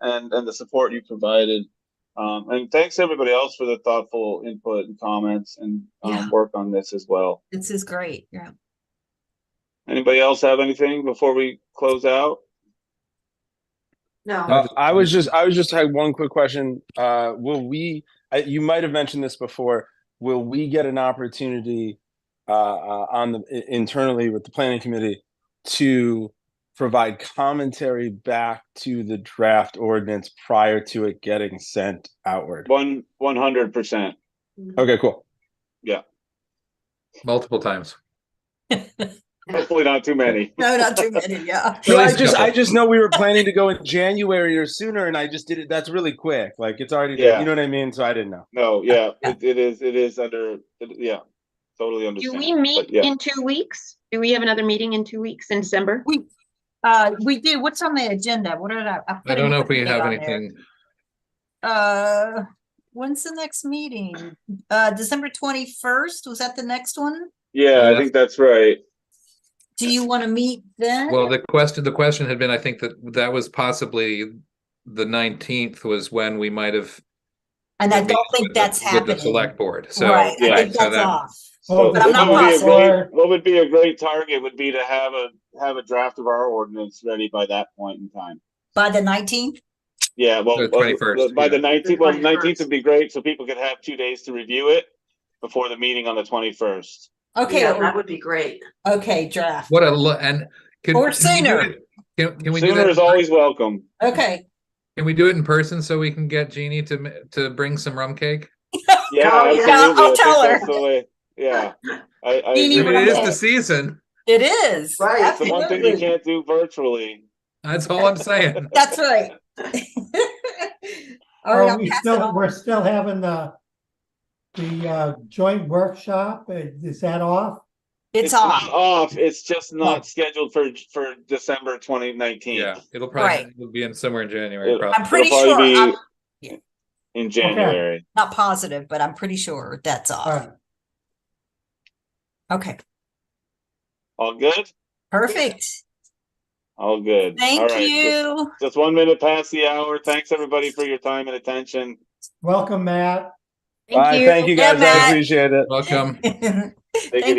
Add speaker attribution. Speaker 1: and and the support you provided. Um, and thanks everybody else for the thoughtful input and comments and um,
Speaker 2: Yeah.
Speaker 1: work on this as well.
Speaker 2: This is great. Yeah.
Speaker 1: Anybody else have anything before we close out?
Speaker 3: No,
Speaker 4: Uh, I was just, I was just had one quick question. Uh, will we? I, you might have mentioned this before. Will we get an opportunity uh, uh, on the i- internally with the planning committee to provide commentary back to the draft ordinance prior to it getting sent outward?
Speaker 1: One one hundred percent.
Speaker 4: Okay, cool.
Speaker 5: multiple times.
Speaker 1: Hopefully not too many.
Speaker 2: No, not too many. Yeah.
Speaker 4: No, I
Speaker 5: least
Speaker 4: just,
Speaker 5: couple.
Speaker 4: I just know we were planning to go in January or sooner, and I just did it. That's really quick. Like it's already,
Speaker 1: Yeah.
Speaker 4: you know what I mean. So I didn't know.
Speaker 1: No, yeah, it, it is. It is under. It, yeah, totally
Speaker 6: Do
Speaker 1: understand.
Speaker 6: we
Speaker 1: But
Speaker 6: meet
Speaker 1: yeah.
Speaker 6: in two weeks? Do we have another meeting in two weeks in December?
Speaker 2: We, uh, we do. What's on the agenda? What did I? I
Speaker 5: I
Speaker 2: put
Speaker 5: don't know if we
Speaker 2: everything
Speaker 5: have
Speaker 2: on there.
Speaker 5: anything.
Speaker 2: Uh, when's the next meeting? Uh, December twenty-first? Was that the next one?
Speaker 1: Yeah, I
Speaker 5: Yeah.
Speaker 1: think that's right.
Speaker 2: Do you want to meet then?
Speaker 5: Well, the question, the question had been, I think that that was possibly the nineteenth was when we might have.
Speaker 2: And I
Speaker 5: with the-
Speaker 2: don't think that's
Speaker 5: with
Speaker 2: happening.
Speaker 5: The select board, so.
Speaker 2: Right, I
Speaker 1: yeah,
Speaker 2: think
Speaker 5: so
Speaker 2: that's
Speaker 5: that-
Speaker 2: off.
Speaker 1: So
Speaker 2: Oh, But I'm
Speaker 1: what
Speaker 2: not
Speaker 1: would be a great-
Speaker 2: positive.
Speaker 1: What would be a great target would be to have a have a draft of our ordinance ready by that point in time.
Speaker 2: By the nineteenth?
Speaker 1: Yeah, well,
Speaker 5: The
Speaker 1: well,
Speaker 5: 21st,
Speaker 1: by the
Speaker 5: yeah.
Speaker 1: nineteenth, well, the nineteenth
Speaker 6: 21st.
Speaker 1: would be great, so people could have two days to review it before the meeting on the twenty-first.
Speaker 2: Okay,
Speaker 3: yeah, that would be great.
Speaker 2: okay, draft.
Speaker 5: What a, lo- and. can-
Speaker 2: Or
Speaker 5: can we do
Speaker 2: sooner.
Speaker 5: it- Can, can we do
Speaker 1: Sooner is
Speaker 5: that?
Speaker 1: always welcome.
Speaker 2: Okay.
Speaker 5: Can we do it in person so we can get Jeannie to, ma- to bring some rum cake?
Speaker 1: Yeah,
Speaker 3: Oh, yeah.
Speaker 1: absolutely.
Speaker 2: I'll
Speaker 1: I think
Speaker 2: tell her.
Speaker 1: that's the way- Yeah, I, I.
Speaker 2: You need
Speaker 5: I
Speaker 1: agree
Speaker 5: mean, it
Speaker 1: with
Speaker 5: is
Speaker 1: that.
Speaker 5: the season.
Speaker 2: It is.
Speaker 3: Right.
Speaker 1: It's the one thing you
Speaker 2: Absolutely.
Speaker 1: can't do virtually.
Speaker 5: That's all I'm saying.
Speaker 2: That's right. All
Speaker 5: Oh,
Speaker 2: right,
Speaker 7: Are
Speaker 2: I'll
Speaker 7: Oh, we
Speaker 2: pass it
Speaker 7: still,
Speaker 2: on.
Speaker 7: we're still having the, the uh, joint workshop, Uh, is that off?
Speaker 2: It's
Speaker 1: not
Speaker 2: off.
Speaker 1: Off, it's just
Speaker 7: No.
Speaker 1: not scheduled for, for December twenty nineteen.
Speaker 5: Yeah, it'll
Speaker 2: Right.
Speaker 5: probably, it'll be in somewhere in January,
Speaker 1: It'll-
Speaker 2: I'm
Speaker 5: probably.
Speaker 2: pretty
Speaker 1: It'll
Speaker 2: sure,
Speaker 1: probably
Speaker 2: I'm
Speaker 1: be In January.
Speaker 2: not positive, but I'm pretty sure that's off.
Speaker 7: Alright,
Speaker 2: Okay,
Speaker 1: All good?
Speaker 2: perfect.
Speaker 1: All good. All
Speaker 2: Thank
Speaker 1: right. Just-
Speaker 2: you.
Speaker 1: Just one minute past the hour. Thanks, everybody, for your time and attention.
Speaker 7: welcome, Matt.
Speaker 4: Bye. Thank you guys.
Speaker 2: Yeah, Matt.
Speaker 4: I appreciate it.
Speaker 5: Welcome.
Speaker 1: Take it
Speaker 2: Thank